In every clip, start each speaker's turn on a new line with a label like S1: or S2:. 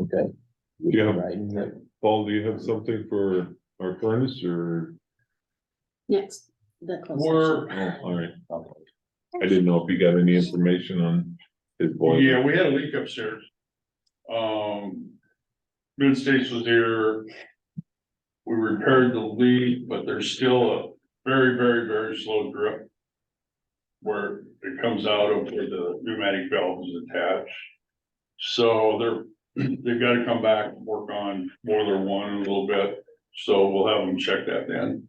S1: Okay.
S2: Yeah.
S1: Right, and that-
S2: Paul, do you have something for our furnace or?
S3: Next, the closed
S4: We're-
S3: session.
S2: Oh, all right. I didn't know if you got any information on his boiler.
S4: Yeah, we had a leak upstairs. Um, Mid States was here. We repaired the leak, but there's still a very, very, very slow drip. Where it comes out of where the pneumatic valve is attached. So they're, they've gotta come back and work on boiler one a little bit, so we'll have them check that then.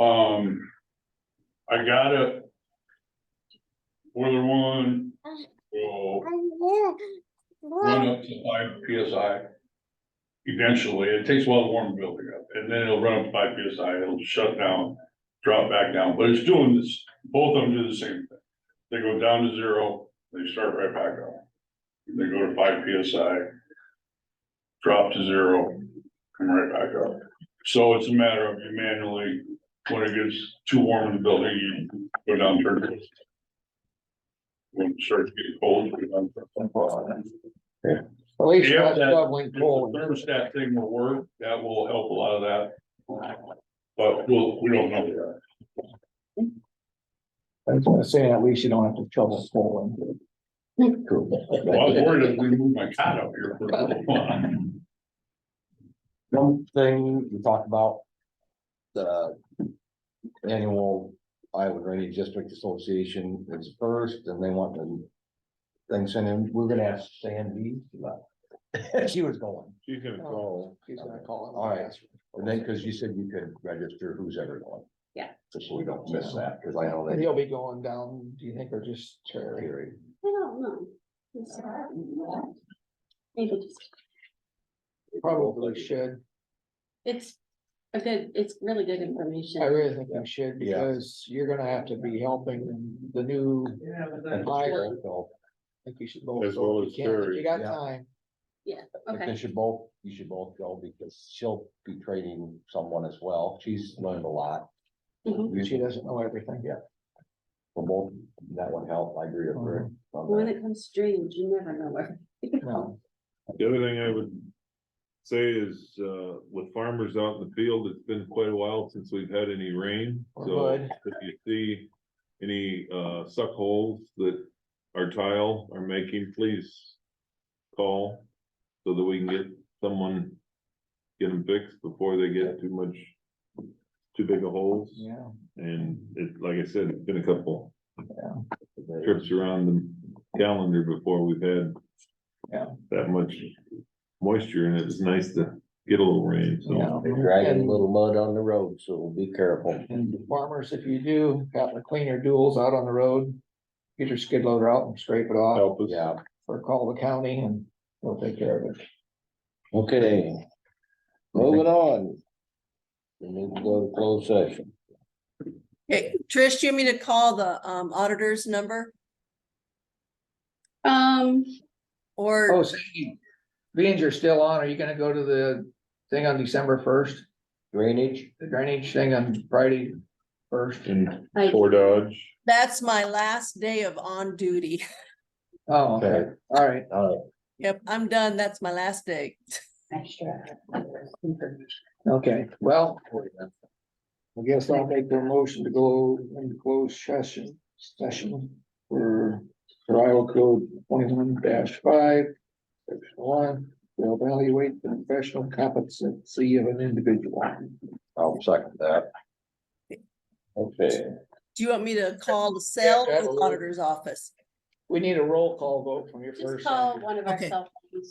S4: Um, I got a boiler one will run up to five PSI. Eventually, it takes a while to warm the building up, and then it'll run up to five PSI, it'll shut down, drop back down, but it's doing this, both of them do the same thing. They go down to zero, they start right back up. They go to five PSI. Drop to zero, come right back up. So it's a matter of you manually, when it gets too warm in the building, you go down turn. it. When it starts getting cold, you go down. turn it.
S1: At least
S4: Yeah,
S1: you're not
S4: that-
S1: shoveling
S4: If the
S1: coal.
S4: Thermostat thing will work, that will help a lot of that. But we'll, we don't know yet.
S1: I was gonna say, at least you don't have to shovel coal. in.
S4: Well, I was worried if we moved my cot up here for a little while.
S1: One thing we talked about. The. Annual Iowa Drainage District Association is first and they want the. Thing sent in, we're gonna ask Sandy, but she was going.
S2: She's gonna
S5: Oh,
S2: call.
S1: She's gonna call. All right, and then, cause you said you could register who's ever going.
S3: Yeah.
S1: Just so we don't miss that, cause I know
S5: And
S1: that.
S5: he'll be going down, do you think, or just Terry?
S1: period.
S3: I don't know. Maybe just,
S5: Probably should.
S3: it's a good, it's really good
S5: I
S3: information.
S5: really think you should
S1: Yeah.
S5: because you're gonna have to be helping the new,
S1: And
S5: Fire.
S1: so,
S5: I think you should both.
S2: As
S5: go if
S2: well
S5: you
S2: as
S5: can, if
S2: Terry,
S5: You got
S1: yeah.
S5: time.
S1: I think
S3: Okay,
S1: They should both, you should both go because she'll be training someone as well. She's learned a lot.
S3: Mhm.
S1: You
S5: She
S1: should,
S5: doesn't know everything.
S1: for both, that would help. I agree with her. on
S3: when
S1: that.
S3: it comes to dreams, you never know where.
S5: No,
S2: The other thing I would say is, uh, with farmers out in the field, it's been quite a while since we've had any rain.
S5: Or
S2: So
S5: mud.
S2: if you see any, uh, suck holes that our tile are making, please call so that we can get someone, get them fixed before they get too much, too big of holes.
S5: yeah.
S2: And it, like I said, it's been a couple trips around the calendar before we've had.
S5: Yeah.
S2: That much moisture and it's nice to get a little rain, so.
S5: Yeah.
S1: They're Dragging a
S5: And-
S1: little mud on the road, so be careful.
S5: And farmers, if you do, have to clean your duels out on the road. Get your skid loader out and scrape it off
S2: Help us.
S1: Yeah,
S5: or call the county and they'll take care of it.
S1: okay. Moving on. We need to go to closed session.
S6: Okay, Trish, do you want me to call the um auditor's number
S3: Um,
S5: Oh,
S6: or,
S5: so you- beans are still on. Are you gonna go to the thing on December first?
S1: Drainage,
S5: The drainage thing on Friday first?
S2: And
S3: I,
S2: Fort Dodge,
S6: that's my last day of on duty.
S5: Oh, okay,
S1: Okay.
S5: all right.
S1: all
S6: Yep, I'm done. That's my last day.
S5: Okay, well, I guess I'll make the motion to go into closed session, session for for Iowa code twenty-one five. Section one, to evaluate the professional competency of an individual.
S1: I'll second that. Okay,
S6: Do you want me to call the cell
S5: Yeah,
S6: or the
S5: absolutely.
S6: auditor's office?
S5: We need a roll call vote from your
S3: just
S5: first.
S3: call one of our
S6: Okay.
S3: cell phones.